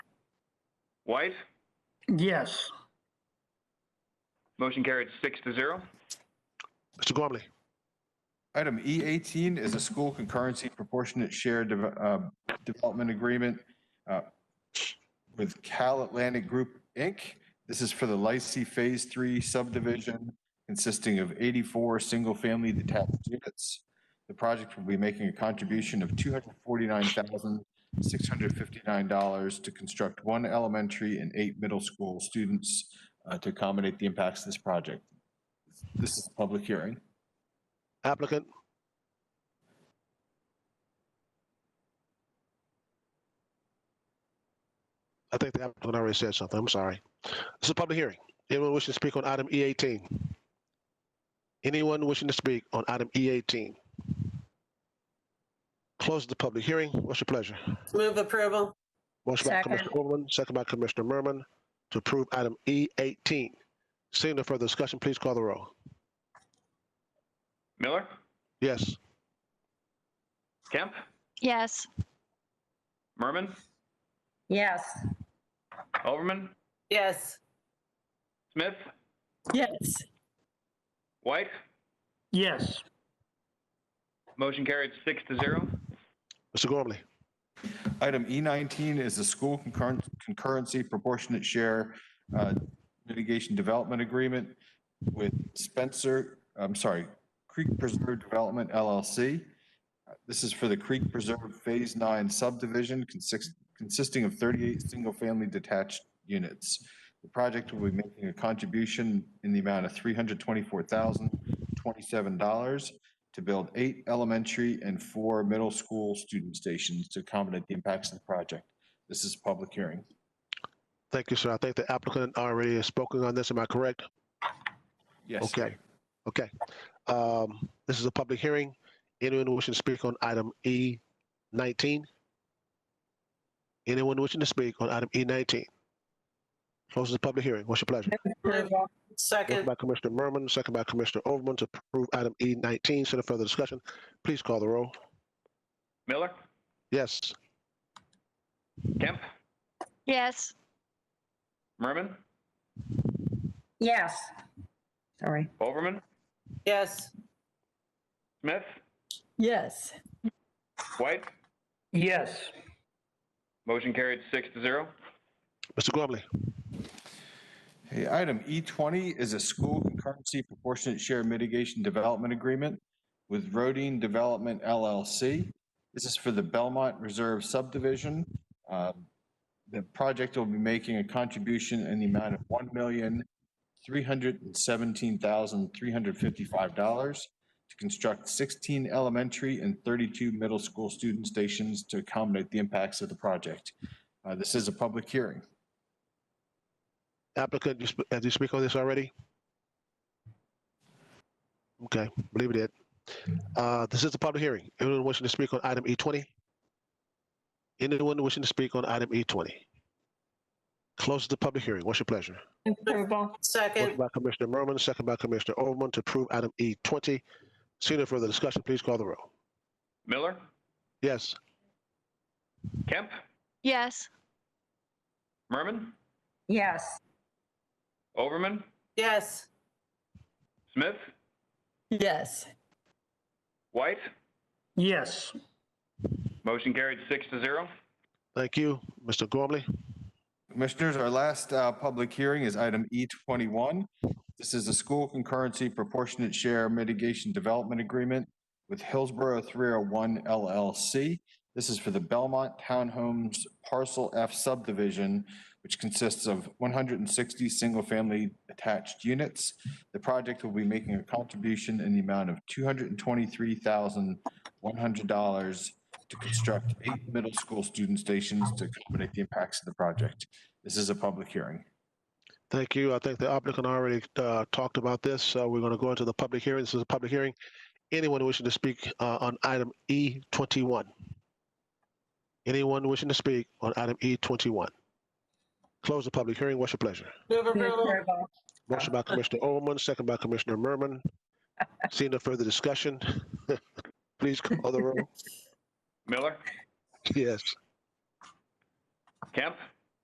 White? Yes. Motion carried six to zero. Mr. Gormley. Item E18 is a school concurrency proportionate share deve- uh, development agreement uh, with Cal Atlantic Group, Inc. This is for the Lycee Phase 3 subdivision consisting of 84 single-family detached units. The project will be making a contribution of $249,659 to construct one elementary and eight middle school students uh, to accommodate the impacts of this project. This is a public hearing. Applicant. I think the applicant already said something. I'm sorry. This is a public hearing. Anyone wishing to speak on item E18? Anyone wishing to speak on item E18? Close the public hearing. What's your pleasure? Move approval. Motion by Second. Commissioner Overman, second by Commissioner Merman to approve item E18. Seeing no further discussion, please call the roll. Miller? Yes. Kemp? Yes. Merman? Yes. Overman? Yes. Smith? Yes. White? Yes. Motion carried six to zero. Mr. Gormley. Item E19 is the school concurren- concurrency proportionate share uh, mitigation development agreement with Spencer, I'm sorry, Creek Preserve Development LLC. Uh, This is for the Creek Preserve Phase 9 subdivision consist- consisting of 38 single-family detached units. The project will be making a contribution in the amount of $324,027 to build eight elementary and four middle school student stations to accommodate the impacts of the project. This is a public hearing. Thank you, sir. I think the applicant already has spoken on this. Am I correct? Yes. Okay. Okay. Um, This is a public hearing. Anyone wishing to speak on item E E19? Anyone wishing to speak on item E19? Closes the public hearing. What's your pleasure? Approval. Motion Second. by Commissioner Merman, second by Commissioner Overman to approve item E E19. Send a further discussion. Please call the roll. Miller? Yes. Kemp? Yes. Merman? Yes. Sorry. Overman? Yes. Smith? Yes. White? Yes. Motion carried six to zero. Mr. Gormley. Okay, item E20 is a school concurrency proportionate share mitigation development agreement with Rodine Development LLC. This is for the Belmont Reserve subdivision. Um, The project will be making a contribution in the amount of $1,317,355 to construct 16 elementary and 32 middle school student stations to accommodate the impacts of the project. Uh, This is a public hearing. Applicant, you sp- did you speak on this already? Okay, believe it did. Uh, This is a public hearing. Anyone wishing to speak on item E20? Anyone wishing to speak on item E20? Close the public hearing. What's your pleasure? Approval. Motion Second. by Commissioner Merman, second by Commissioner Overman to approve item E20. Seeing no further discussion, please call the roll. Miller? Yes. Kemp? Yes. Merman? Yes. Overman? Yes. Smith? Yes. White? Yes. Motion carried six to zero. Thank you, Mr. Gormley. Commissioners, our last uh, public hearing is item E21. This is a school concurrency proportionate share mitigation development agreement with Hillsborough 301 LLC. This is for the Belmont Townhomes Parcel F subdivision, which consists of 160 single-family attached units. The project will be making a contribution in the amount of $223,100 to construct eight middle school student stations to accommodate the impacts of the project. This is a public hearing. Thank you. I think the applicant already uh, talked about this, so we're going to go into the public hearing. This is a public hearing. Anyone wishing to speak uh, on item E21? Anyone wishing to speak on item E21? Close the public hearing. What's your pleasure? Move approval. Motion by Commissioner Overman, second by Commissioner Merman. Seeing no further discussion, please call the roll. Miller? Yes. Kemp?